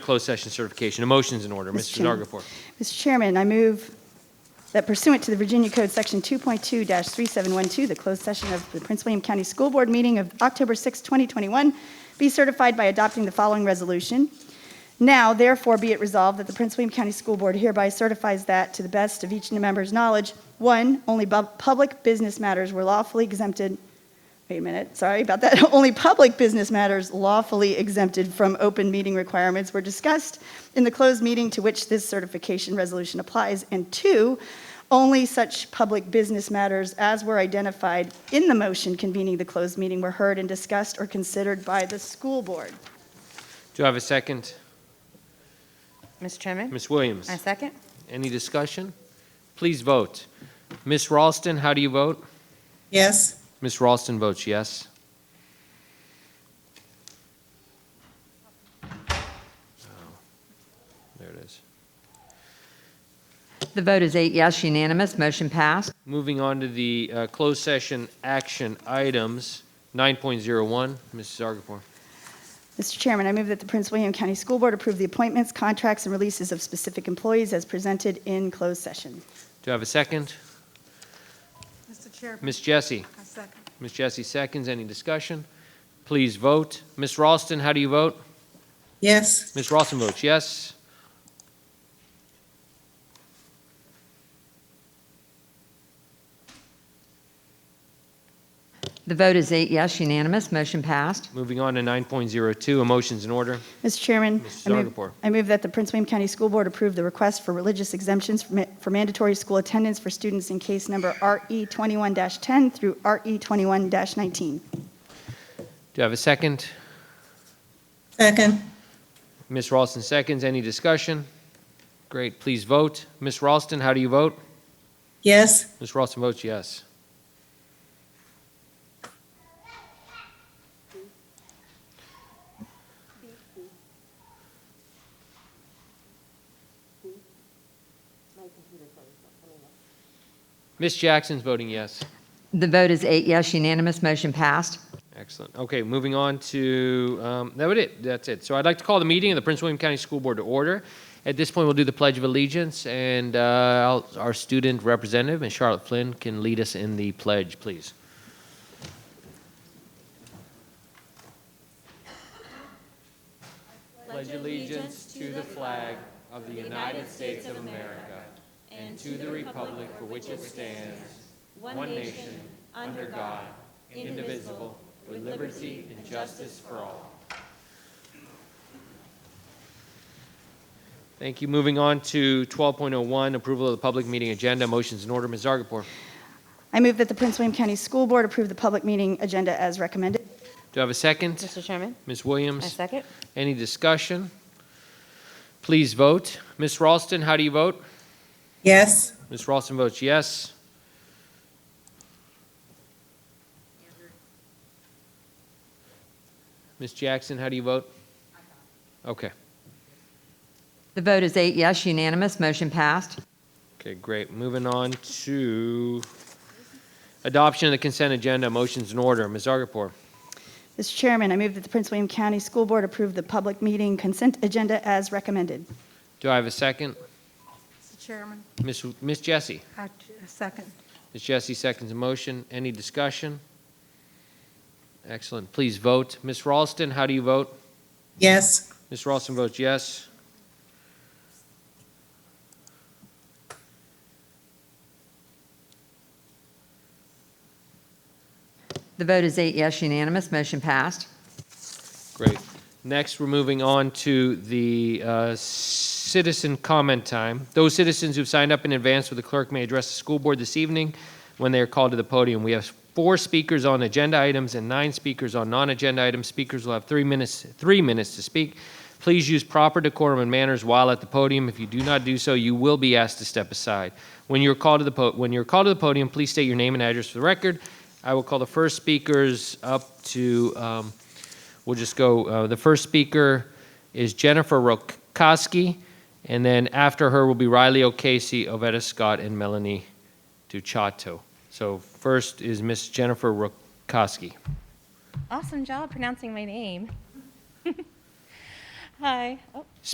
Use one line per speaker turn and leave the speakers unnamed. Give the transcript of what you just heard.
closed session certification. A motion's in order. Mr.
Chairman.
Dargapour.
Mr. Chairman, I move that pursuant to the Virginia Code Section 2.2-3712, the closed session of the Prince William County School Board meeting of October 6, 2021, be certified by adopting the following resolution. Now, therefore, be it resolved that the Prince William County School Board hereby certifies that, to the best of each member's knowledge, one, only bu- public business matters were lawfully exempted Wait a minute, sorry about that. Only public business matters lawfully exempted from open meeting requirements were discussed in the closed meeting to which this certification resolution applies. And two, only such public business matters as were identified in the motion convening the closed meeting were heard and discussed or considered by the school board.
Do I have a second?
Mr. Chairman?
Ms. Williams?
I second.
Any discussion? Please vote. Ms. Ralston, how do you vote?
Yes,
Ms. Ralston votes yes. Oh, There it is.
The vote is eight yes, unanimous, motion passed.
Moving on to the uh, closed session action items, 9.01, Mrs. Dargapour.
Mr. Chairman, I move that the Prince William County School Board approve the appointments, contracts, and releases of specific employees as presented in closed session.
Do I have a second?
Mr. Chairman,
Ms. Jessie?
I second.
Ms. Jessie seconds. Any discussion? Please vote. Ms. Ralston, how do you vote?
yes,
Ms. Ralston votes yes.
The vote is eight yes, unanimous, motion passed.
Moving on to 9.02, a motion's in order.
Mr. Chairman.
Mrs.
I move-
Zargarpur.
I move that the Prince William County School Board approve the request for religious exemptions for ma- for mandatory school attendance for students in case number E RE 21-10 through E RE 21-19.
Do I have a second?
second,
Ms. Ralston seconds. Any discussion? Great, please vote. Ms. Ralston, how do you vote?
yes,
Ms. Ralston votes yes. Ms. Jackson's voting yes.
The vote is eight yes, unanimous, motion passed.
Excellent. Okay, moving on to, um, that would it, that's it. So I'd like to call the meeting of the Prince William County School Board to order. At this point, we'll do the Pledge of Allegiance, and uh, I'll- our student representative, Ms. Charlotte Flynn, can lead us in the pledge, please. Pledge allegiance to the flag of the United States of America and to the republic for which it stands, one nation, under God, indivisible, with liberty and justice for all. Thank you. Moving on to 12.01, approval of the public meeting agenda. Motion's in order. Ms. Zargarpur.
I move that the Prince William County School Board approve the public meeting agenda as recommended.
Do I have a second?
Mr. Chairman?
Ms. Williams?
I second.
Any discussion? Please vote. Ms. Ralston, how do you vote?
yes,
Ms. Ralston votes yes. Ms. Jackson, how do you vote? Okay,
The vote is eight yes, unanimous, motion passed.
okay, great. Moving on to adoption of the consent agenda, motions in order. Ms. Zargarpur,
Mr. Chairman, I move that the Prince William County School Board approve the public meeting consent agenda as recommended.
do I have a second?
Mr. Chairman,
Ms. Ms. Jessie?
I I second.
Ms. Jessie seconds the motion. Any discussion? Excellent. Please vote. Ms. Ralston, how do you vote?
yes,
Ms. Ralston votes yes.
The vote is eight yes, unanimous, motion passed.
Great. Next, we're moving on to the uh, citizen comment time. Those citizens who've signed up in advance with the clerk may address the school board this evening when they are called to the podium. We have four speakers on agenda items and nine speakers on non-agenda items. Speakers will have three minutes, three minutes to speak. Please use proper decorum and manners while at the podium. If you do not do so, you will be asked to step aside. When you're called to the, po- when you're called to the podium, please state your name and address for the record. I will call the first speakers up to, um, We'll just go, uh, the first speaker is Jennifer Rokoski, and then after her will be Riley O'Casey, Ovetta Scott, and Melanie Duchato. So first is Miss Jennifer Rokoski.
Awesome job pronouncing my name. Hi. Oh,